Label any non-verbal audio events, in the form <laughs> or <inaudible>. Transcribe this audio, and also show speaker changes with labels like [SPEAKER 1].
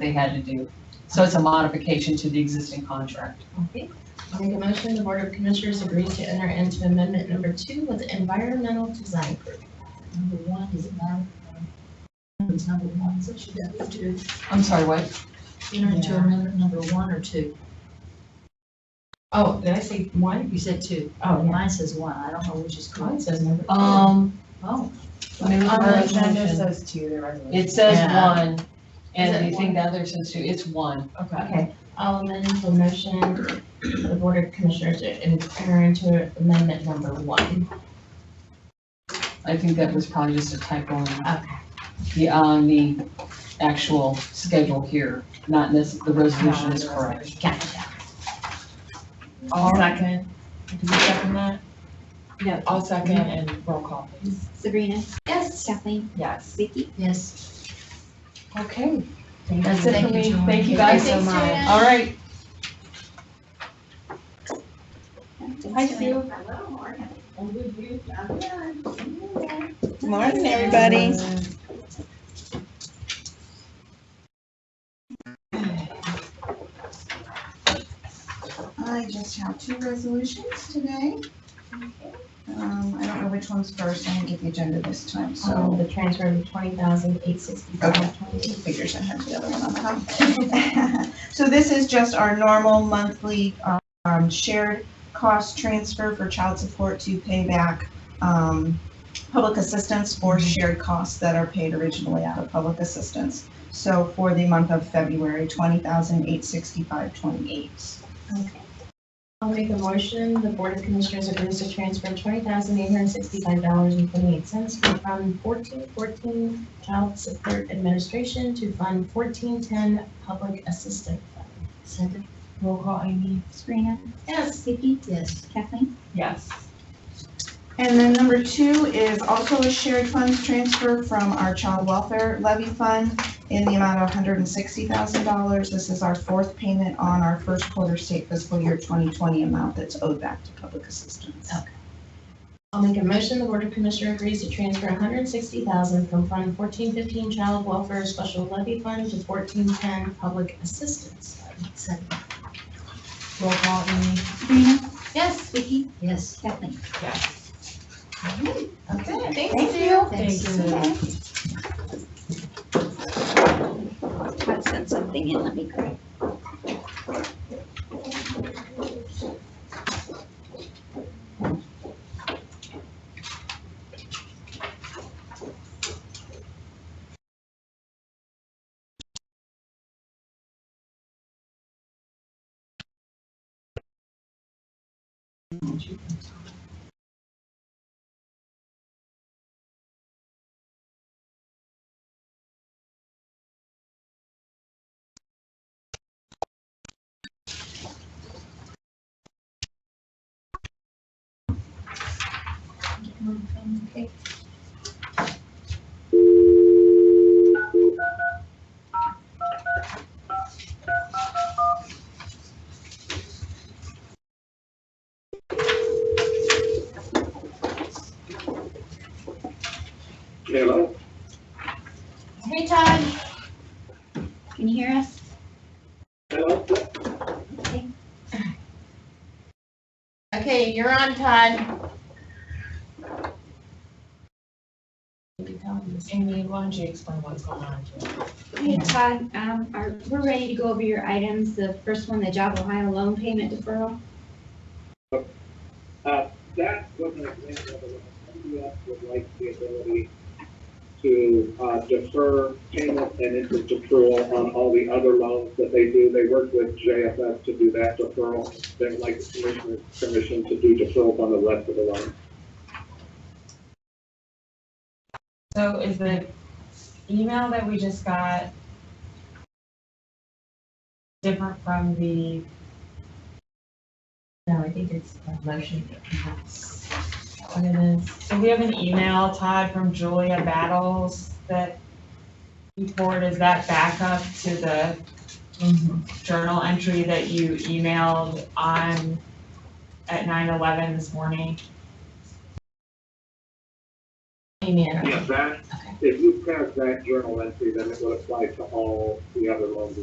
[SPEAKER 1] they had to do. So it's a modification to the existing contract.
[SPEAKER 2] Okay. I'll Make a motion, the Board of Commissioners agrees to enter into amendment number two with environmental design group.
[SPEAKER 3] Number one is about, um, it's number one, so should that be two,
[SPEAKER 1] I'm sorry, what?
[SPEAKER 3] enter into
[SPEAKER 2] Yeah.
[SPEAKER 3] amendment number one or two?
[SPEAKER 2] Oh, did I say one?
[SPEAKER 3] You said two,
[SPEAKER 2] Oh, yeah.
[SPEAKER 3] mine says one, I don't know which is
[SPEAKER 2] Mine
[SPEAKER 3] correct.
[SPEAKER 2] says number two.
[SPEAKER 1] Um,
[SPEAKER 3] Oh,
[SPEAKER 1] new
[SPEAKER 2] On the agenda
[SPEAKER 1] version.
[SPEAKER 2] says two, the resolution.
[SPEAKER 1] It says
[SPEAKER 3] Yeah.
[SPEAKER 1] one,
[SPEAKER 2] Is
[SPEAKER 1] and
[SPEAKER 2] it
[SPEAKER 1] I think the other says two, it's one.
[SPEAKER 2] Okay. I'll amend the motion, for the Board of Commissioners to enter into amendment number one.
[SPEAKER 1] I think that was probably just a typo on
[SPEAKER 2] Okay.
[SPEAKER 1] the, on the actual schedule here, not this, the resolution is correct.
[SPEAKER 2] Gotcha.
[SPEAKER 4] All right,
[SPEAKER 2] Second.
[SPEAKER 4] do you second that?
[SPEAKER 1] Yeah.
[SPEAKER 4] I'll second and roll call, please.
[SPEAKER 5] Sabrina,
[SPEAKER 2] Yes.
[SPEAKER 5] Kathleen,
[SPEAKER 4] Yes.
[SPEAKER 5] Vicky.
[SPEAKER 3] yes,
[SPEAKER 1] Okay,
[SPEAKER 3] thank you.
[SPEAKER 1] that's it for
[SPEAKER 2] Thank you,
[SPEAKER 1] me.
[SPEAKER 2] Joanne.
[SPEAKER 1] Thank you guys so
[SPEAKER 2] Thanks,
[SPEAKER 1] much.
[SPEAKER 2] Joanne.
[SPEAKER 1] All right,
[SPEAKER 5] Hi, Sue.
[SPEAKER 6] Morning, everybody. I just have two resolutions today. Um, I don't know which one's first, I didn't get the agenda this time,
[SPEAKER 2] Um,
[SPEAKER 6] so
[SPEAKER 2] the transfer of twenty thousand eight sixty-five twenty.
[SPEAKER 6] figures I have the other one on top. <laughs> So this is just our normal monthly, um, shared cost transfer for child support to pay back, um, public assistance for shared costs that are paid originally out of public assistance. So for the month of February, twenty thousand eight sixty-five twenty-eight.
[SPEAKER 2] I'll make a motion, the Board of Commissioners agrees to transfer twenty thousand eight hundred sixty-five dollars and twenty-eight cents from Fund fourteen fourteen Child Support Administration to Fund fourteen ten Public Assistance Fund.
[SPEAKER 3] Second,
[SPEAKER 4] Roll call, Amy?
[SPEAKER 5] Sabrina,
[SPEAKER 2] Yes.
[SPEAKER 5] Vicky,
[SPEAKER 3] yes,
[SPEAKER 5] Kathleen.
[SPEAKER 4] Yes.
[SPEAKER 6] And then number two is also a shared funds transfer from our child welfare levy fund in the amount of $160,000. This is our fourth payment on our first quarter state fiscal year 2020 amount that's owed back to public assistance.
[SPEAKER 2] I'll make a motion, the Board of Commissioners agrees to transfer $160,000 from Fund fourteen fifteen Child Welfare Special Levy Fund to fourteen ten Public Assistance Fund.
[SPEAKER 3] second,
[SPEAKER 4] Roll call, Amy?
[SPEAKER 5] Sabrina,
[SPEAKER 2] Yes.
[SPEAKER 5] Vicky,
[SPEAKER 3] yes.
[SPEAKER 5] Kathleen.
[SPEAKER 4] Yes.
[SPEAKER 2] Okay, thank you.
[SPEAKER 6] Thank you.
[SPEAKER 3] Thanks.
[SPEAKER 5] Todd sent something in, let me grab. Okay.
[SPEAKER 7] Hello?
[SPEAKER 2] Hey, Todd.
[SPEAKER 5] Can you hear us?
[SPEAKER 7] Hello?
[SPEAKER 2] Okay, you're on, Todd. Maybe tell him this.
[SPEAKER 4] Amy, why don't you explain what's going on? here?
[SPEAKER 8] Hey Todd, um, are, we're ready to go over your items. The first one, the Job Ohio loan payment deferral.
[SPEAKER 7] That was an example of what MDS would like the ability to uh, defer payment and interest accrual on all the other loans that they do. They work with JFS to do that deferral. They would like the commissioner's permission to do deferrals on the rest of the loan.
[SPEAKER 4] So is the email that we just got different from the,
[SPEAKER 2] No, I think it's a motion. Is that What it is.
[SPEAKER 4] so we have an email, Todd, from Julia Battles that you forwarded, is that backup to the journal entry that you emailed on, at 9:11 this morning?
[SPEAKER 2] Amy, I don't-
[SPEAKER 7] Yeah, that,
[SPEAKER 2] Okay.
[SPEAKER 7] if you pass that journal entry, then it would apply to all the other loans